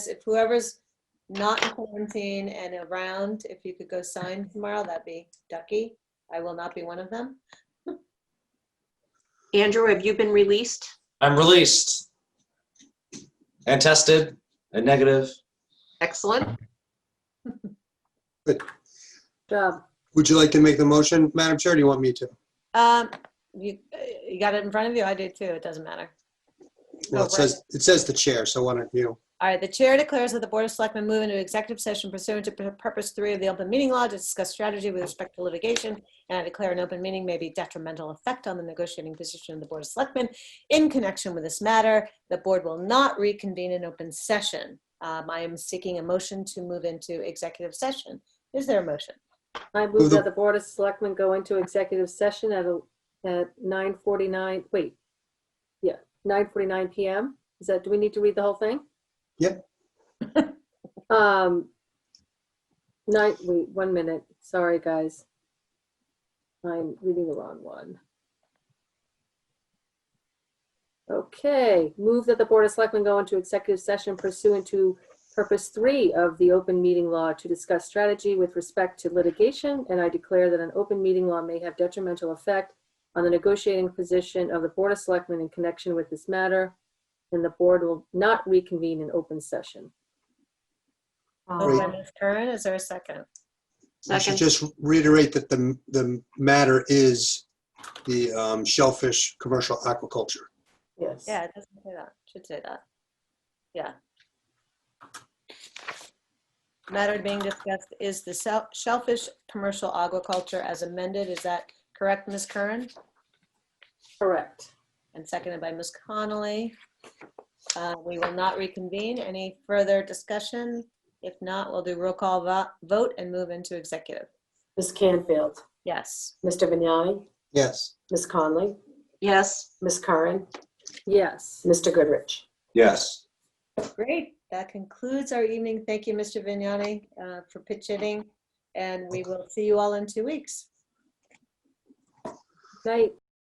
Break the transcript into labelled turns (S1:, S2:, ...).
S1: if whoever's not in quarantine and around, if you could go sign tomorrow, that'd be Ducky. I will not be one of them.
S2: Andrew, have you been released?
S3: I'm released and tested and negative.
S2: Excellent.
S4: Good.
S2: Job.
S4: Would you like to make the motion, Madam Chair? or Do you want me to?
S1: Um, you, you got it in front of you. I do too. It doesn't matter.
S4: Well, it says, it says the chair, so why don't you?
S1: All right, the chair declares that the Board of Selectmen move into executive session pursuant to purpose three of the open meeting law to discuss strategy with respect to litigation. And I declare an open meeting may be detrimental effect on the negotiating position of the Board of Selectmen in connection with this matter. The board will not reconvene in open session. Um, I am seeking a motion to move into executive session. Is there a motion?
S5: I
S4: Move
S5: move
S4: the-
S5: that the Board of Selectmen go into executive session at, a- at 9:49, wait. Yeah, 9:49 PM. Is that, do we need to read the whole thing?
S4: Yep.
S5: Um, nine, wait, one minute. Sorry, guys. I'm reading the wrong one. Okay, move that the Board of Selectmen go into executive session pursuant to Purpose three of the open meeting law to discuss strategy with respect to litigation, and I declare that an open meeting law may have detrimental effect on the negotiating position of the Board of Selectmen in connection with this matter, and the board will not reconvene in open session.
S1: Moved Oh, by
S2: Um,
S1: Ms. Curran, is there a second?
S4: I
S2: Second,
S4: should just reiterate that the, the matter is the um, shellfish commercial aquaculture.
S5: Yes.
S1: Yeah, it doesn't say that, should say that. Yeah. Matter being discussed is the shell- shellfish commercial aquaculture as amended. Is that correct, Ms. Curran?
S5: Correct.
S1: And seconded by Ms. Connolly. Uh, We will not reconvene. Any further discussion? If not, we'll do roll call vo- vote and move into executive.
S6: Ms. Canfield,
S1: Yes.
S6: Mr. Vignani,
S4: Yes.
S6: Ms. Conley,
S2: yes.
S6: Ms. Curran,
S5: Yes.
S6: Mr. Goodrich.
S3: Yes.
S1: Great, that concludes our evening. Thank you, Mr. Vignani, uh, for pitch hitting. And we will see you all in two weeks.
S5: Night.